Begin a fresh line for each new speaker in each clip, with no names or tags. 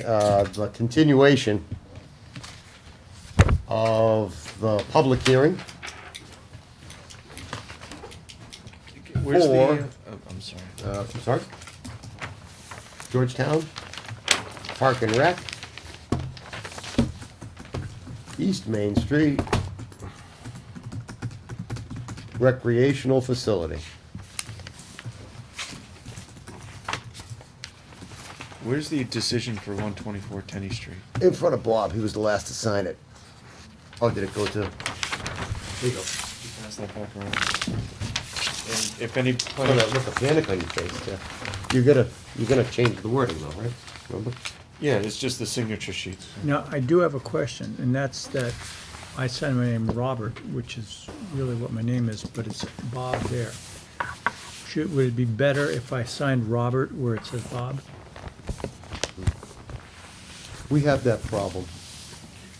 uh, the continuation of the public hearing
Where's the,
Or-
uh, oh, I'm sorry.
uh, I'm sorry, Georgetown, Park and Rec, East Main Street, recreational facility.
Where's the decision for one twenty-four Tenny Street?
In front of Bob, he was the last to sign it. Oh, did it go to? Legal.
Pass that back around. And if any,
Oh, Look
planning-
at the panic on your face, Jeff. You're gonna, you're gonna change the wording though, right? Remember?
yeah, it's just the signature sheets.
Now, I do have a question, and that's that I signed my name Robert, which is really what my name is, but it's Bob there. Should, would it be better if I signed Robert where it says Bob?
We have that problem.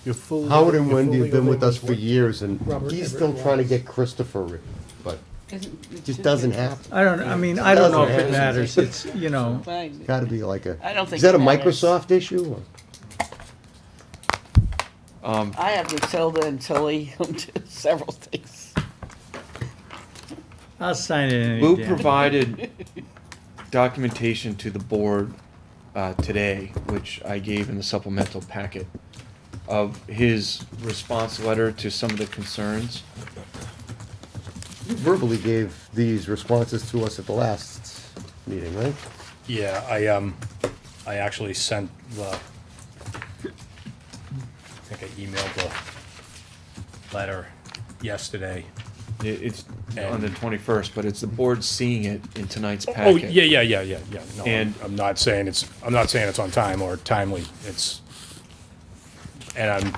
Your full.
Howard and
your
Wendy
full
have been
legal
with
name
us
is
for
what?
years and
Robert
he's
Everett
still trying to
Wallace.
get Christopher, but
It
it just doesn't happen.
I don't, I mean, I don't know if it matters, it's, you know,
Gotta be like a,
I don't
is
think
that a
it matters.
Microsoft issue or?
Um,
I have Matilda and Tilly on several things.
I'll sign it any
Lou
day.
provided documentation to the board uh, today, which I gave in the supplemental packet, of his response letter to some of the concerns.
You verbally gave these responses to us at the last meeting, right?
Yeah, I, um, I actually sent the, I think I emailed the letter yesterday.
I- It's on the twenty-first, but it's the board seeing it in tonight's
Oh,
packet.
yeah, yeah, yeah, yeah, yeah. No,
And-
I'm- I'm not saying it's, I'm not saying it's on time or timely. It's, and I'm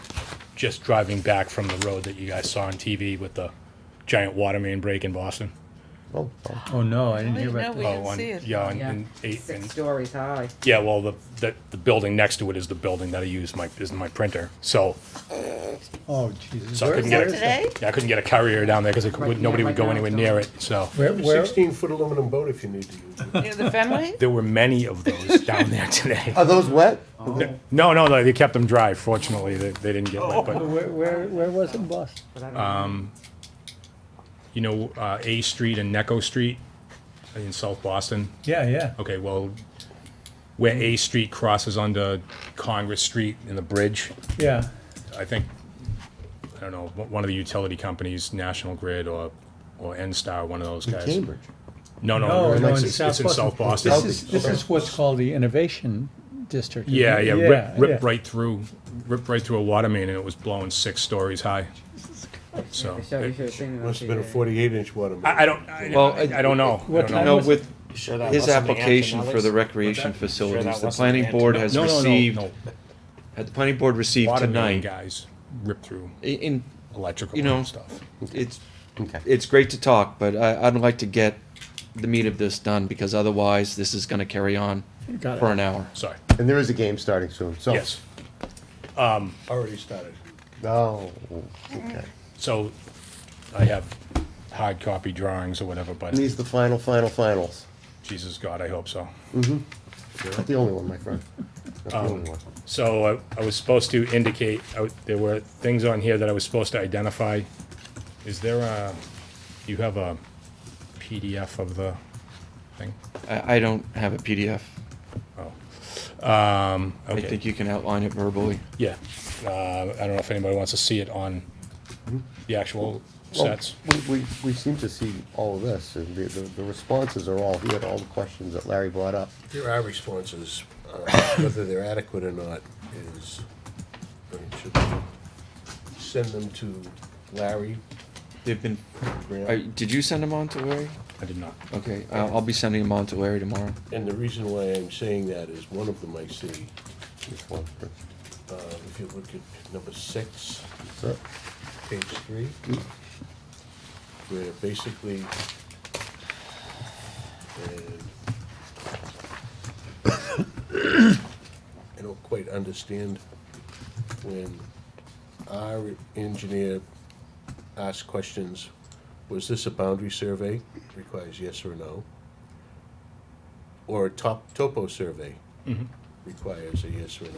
just driving back from the road that you guys saw on TV with the giant water main break in Boston.
Oh, oh.
Oh, no, I didn't hear
No,
about
we
that.
Oh,
didn't
on,
see it.
yeah, on,
Yeah,
in eight,
six
in-
stories high.
Yeah, well, the, the, the building next to it is the building that I use my, is my printer, so,
Oh, Jesus.
so I couldn't
Is
get
that
a-
today?
Yeah, I couldn't get a carrier down there because
Right,
nobody would
yeah, right
go
now
anywhere
it's
near
not.
it, so.
Where, where,
Sixteen-foot aluminum boat if you need to use it.
Near the Fenway?
There were many of those down there today.
Are those wet?
Oh,
Oh,
No, no, no, they kept them dry, fortunately, they, they didn't get wet,
Oh.
but,
where, where, where was it, boss?
But I don't
Uh,
know.
you know, uh, A Street and Necco Street in South Boston,
Yeah, yeah.
okay, well, where A Street crosses onto Congress Street and the bridge,
Yeah,
I think, I don't know, one one of the utility companies, National Grid or, or N-Star, one of those
In
guys.
Cambridge?
No,
no,
no,
Oh, no,
it's,
in
it's
South
in South
Boston.
Boston.
This is, this is what's called the Innovation District. isn't
Yeah,
it?
yeah, rip,
yeah.
rip right through, rip right through a water main, and it was blowing six stories high. So,
Michelle, you
it-
should have seen it on
Must have been a
TV.
forty-eight inch water. main.
I, I don't, I,
Well,
I, I don't know. I
What
don't
time
know.
No,
was-
with
Sure that
his
wasn't the
application for the
Antonellis?
recreation
Sure that
facilities, the
wasn't
planning
the
board
Antonellis?
has
No, no, no,
received,
no.
had the planning board received
Water main
tonight,
guys rip through
i- in,
electrical
you know,
and stuff.
it's,
Okay.
it's great to talk, but I, I'd like to get the meat of this done, because otherwise, this is gonna carry on
Got it.
for an hour.
Sorry.
And there is a game starting soon, so.
Yes. Um,
Already started.
Oh, okay.
So, I have hard copy drawings or whatever, but
And these the final, final, finals.
Jesus God, I hope so.
Not the only one, my friend. Not
Um,
the only one.
So I, I was supposed to indicate, I w- there were things on here that I was supposed to identify. Is there a, you have a PDF of the thing?
I, I don't have a PDF.
Um,
I
okay,
think you can outline it verbally.
yeah. Uh, I don't know if anybody wants to see it on the actual
Well,
sets.
We, we, we seem to see all of this, and the, the the responses are all here, to all the questions that Larry brought up.
Here are responses, uh, whether they're adequate or not is, I mean, should we send them to Larry
They've been, uh,
Graham?
did you send them on to Larry?
I did not.
Okay, I'll, I'll be sending them on to Larry tomorrow.
And the reason why I'm saying that is one of them I see,
This one first.
uh, if you look at number six,
So,
page three, where basically, and I don't quite understand when our engineer asked questions, was this a boundary survey? Requires yes or no? Or a top, topo survey? requires a yes or a no.